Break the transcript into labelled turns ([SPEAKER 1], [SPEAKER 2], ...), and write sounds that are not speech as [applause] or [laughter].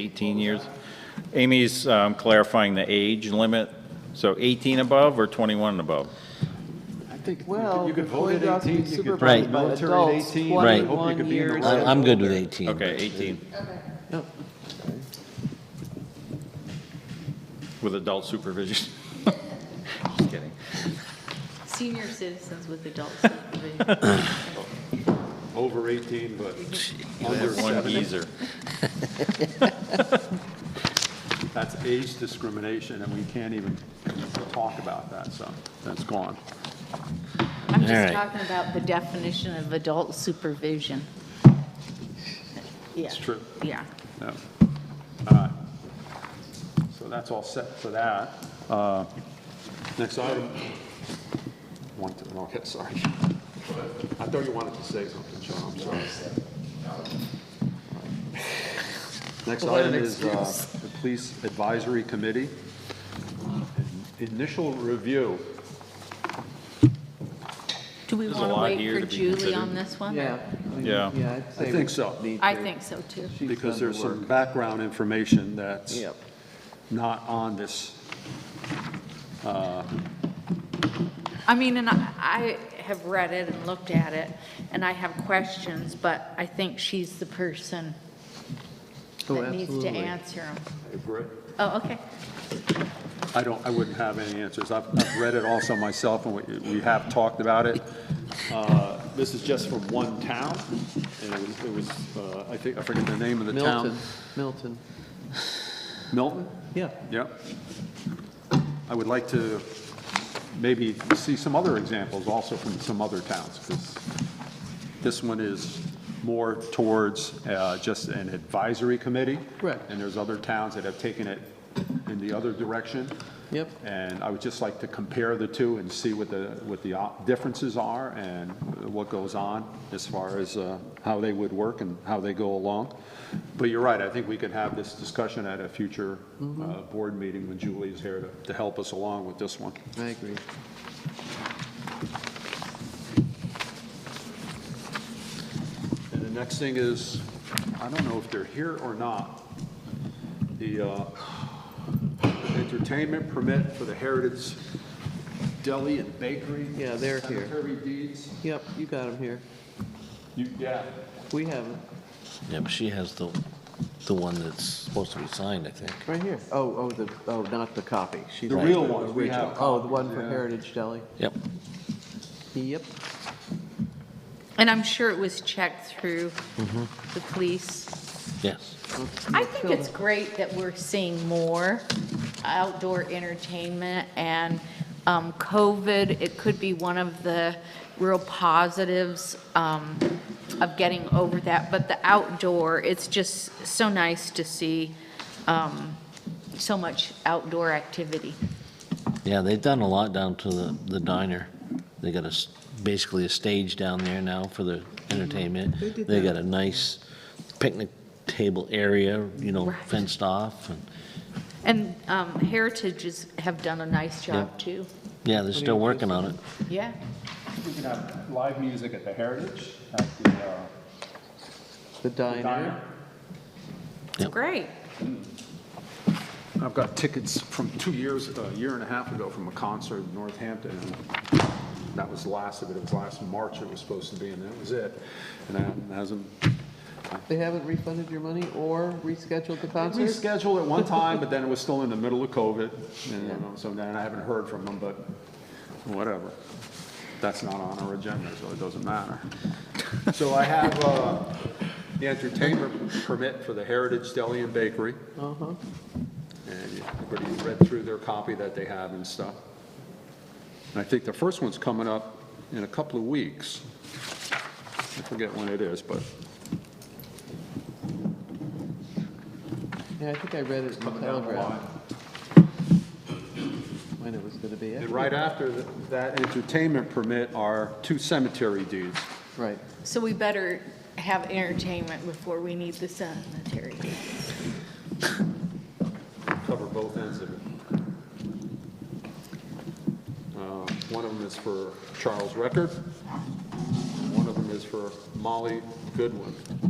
[SPEAKER 1] 18 years. Amy's um, clarifying the age limit, so 18 above or 21 and above?
[SPEAKER 2] I think
[SPEAKER 3] Well,
[SPEAKER 2] you could
[SPEAKER 3] before
[SPEAKER 2] vote at
[SPEAKER 3] you have to be
[SPEAKER 2] 18, you could
[SPEAKER 3] supervised
[SPEAKER 2] join the
[SPEAKER 3] by
[SPEAKER 2] military at
[SPEAKER 3] adults,
[SPEAKER 2] 18, you could
[SPEAKER 3] 21
[SPEAKER 2] hope you could be in the
[SPEAKER 3] years.
[SPEAKER 2] Royal
[SPEAKER 3] I-
[SPEAKER 4] I- I'm good with 18.
[SPEAKER 1] Okay, 18, with adult supervision. [laughs] Just kidding.
[SPEAKER 5] Senior citizens with
[SPEAKER 3] [laughs]
[SPEAKER 5] adult supervision.
[SPEAKER 2] Over 18, but under
[SPEAKER 1] One
[SPEAKER 2] 70.
[SPEAKER 1] geezer.
[SPEAKER 2] That's age discrimination, and we can't even talk about that, so that's gone.
[SPEAKER 5] I'm
[SPEAKER 4] All right.
[SPEAKER 5] just talking about the definition of adult supervision. Yeah,
[SPEAKER 2] It's true.
[SPEAKER 5] yeah.
[SPEAKER 2] No. All right. So that's all set for that. Uh, Next item. One, two, okay, sorry. I thought you wanted to say something, Sean, I'm sorry. Next item is uh, the Police Advisory Committee. Initial review.
[SPEAKER 5] Do we
[SPEAKER 1] There's a
[SPEAKER 5] want to
[SPEAKER 1] lot
[SPEAKER 5] wait
[SPEAKER 1] here
[SPEAKER 5] for
[SPEAKER 1] to be
[SPEAKER 5] Julie
[SPEAKER 1] considered.
[SPEAKER 5] on this one?
[SPEAKER 3] Yeah. I mean,
[SPEAKER 1] Yeah.
[SPEAKER 3] I'd
[SPEAKER 2] I
[SPEAKER 3] say
[SPEAKER 2] think
[SPEAKER 3] we
[SPEAKER 2] so.
[SPEAKER 3] need
[SPEAKER 5] I
[SPEAKER 3] to-
[SPEAKER 5] think so, too.
[SPEAKER 3] she's
[SPEAKER 2] because
[SPEAKER 3] done the
[SPEAKER 2] there's some
[SPEAKER 3] work.
[SPEAKER 2] background information that's
[SPEAKER 3] Yep.
[SPEAKER 2] not on this.
[SPEAKER 5] I mean, and I, I have read it and looked at it, and I have questions, but I think she's the person
[SPEAKER 3] Oh,
[SPEAKER 5] that needs to
[SPEAKER 3] absolutely.
[SPEAKER 5] answer them.
[SPEAKER 2] Agree.
[SPEAKER 5] Oh, okay.
[SPEAKER 2] I don't, I wouldn't have any answers. I've, I've read it also myself, and we, we have talked about it. Uh, This is just from one town, and it was, it was, uh, I think, I forget the name of the town.
[SPEAKER 3] Milton, Milton,
[SPEAKER 2] Milton?
[SPEAKER 3] yeah.
[SPEAKER 2] Yep. I would like to maybe see some other examples also from some other towns, because this one is more towards uh, just an advisory committee.
[SPEAKER 3] Correct.
[SPEAKER 2] And there's other towns that have taken it in the other direction.
[SPEAKER 3] Yep.
[SPEAKER 2] And I would just like to compare the two and see what the, what the op- differences are and what goes on as far as uh, how they would work and how they go along. But you're right, I think we could have this discussion at a future
[SPEAKER 3] Mm-hmm.
[SPEAKER 2] uh, board meeting when Julie is here to, to help us along with this one.
[SPEAKER 3] I agree.
[SPEAKER 2] And the next thing is, I don't know if they're here or not, the uh, entertainment permit for the Heritage Deli and Bakery.
[SPEAKER 3] Yeah, they're here.
[SPEAKER 2] Cemetery deeds.
[SPEAKER 3] Yep, you got him here.
[SPEAKER 2] You, yeah.
[SPEAKER 3] We have him,
[SPEAKER 4] Yeah, but she has the, the one that's supposed to be signed, I think.
[SPEAKER 3] right here. Oh, oh, the, oh, not the copy. She's
[SPEAKER 2] The
[SPEAKER 3] right.
[SPEAKER 2] real ones we have
[SPEAKER 3] Original. Oh, the one for
[SPEAKER 2] copies, yeah.
[SPEAKER 3] Heritage Deli.
[SPEAKER 4] Yep.
[SPEAKER 3] Yep,
[SPEAKER 5] And I'm sure it was checked through the police.
[SPEAKER 4] Yes.
[SPEAKER 5] I think it's great that we're seeing more outdoor entertainment, and um, COVID, it could be one of the real positives um, of getting over that, but the outdoor, it's just so nice to see um, so much outdoor activity.
[SPEAKER 4] Yeah, they've done a lot down to the, the diner. They got a, s- basically a stage down there now for the entertainment.
[SPEAKER 3] They did
[SPEAKER 4] They
[SPEAKER 3] that.
[SPEAKER 4] got a nice picnic table area, you know,
[SPEAKER 5] Right.
[SPEAKER 4] fenced off. and
[SPEAKER 5] And um, Heritage is- have done a nice job, too.
[SPEAKER 4] Yeah, they're still working on it.
[SPEAKER 5] Yeah.
[SPEAKER 2] We can have live music at the Heritage, at the uh,
[SPEAKER 3] the diner.
[SPEAKER 2] diner.
[SPEAKER 5] It's great.
[SPEAKER 2] I've got tickets from two years, a year and a half ago from a concert in Northampton. and That was the last of it. It was last March it was supposed to be, and that was it. And that hasn't,
[SPEAKER 3] They haven't refunded your money or rescheduled the
[SPEAKER 2] we
[SPEAKER 3] concert?
[SPEAKER 2] scheduled it one time, but then it was still in the middle of COVID. And you know, so then I haven't heard from them, but whatever. That's not on our agenda, so it doesn't matter. So I have uh, the entertainment permit for the Heritage Deli and Bakery.
[SPEAKER 3] Uh-huh.
[SPEAKER 2] And everybody read through their copy that they have and stuff. And I think the first one's coming up in a couple of weeks. I forget when it is, but
[SPEAKER 3] Yeah, I think I read it in the
[SPEAKER 2] coming down the
[SPEAKER 3] telegraph
[SPEAKER 2] line.
[SPEAKER 3] when it was going to be.
[SPEAKER 2] And right after th- that entertainment permit are two cemetery deeds.
[SPEAKER 3] Right.
[SPEAKER 5] So we better have entertainment before we need the sanitary.
[SPEAKER 2] Cover both ends of it. Uh, One of them is for Charles Record. One of them is for Molly Goodwin.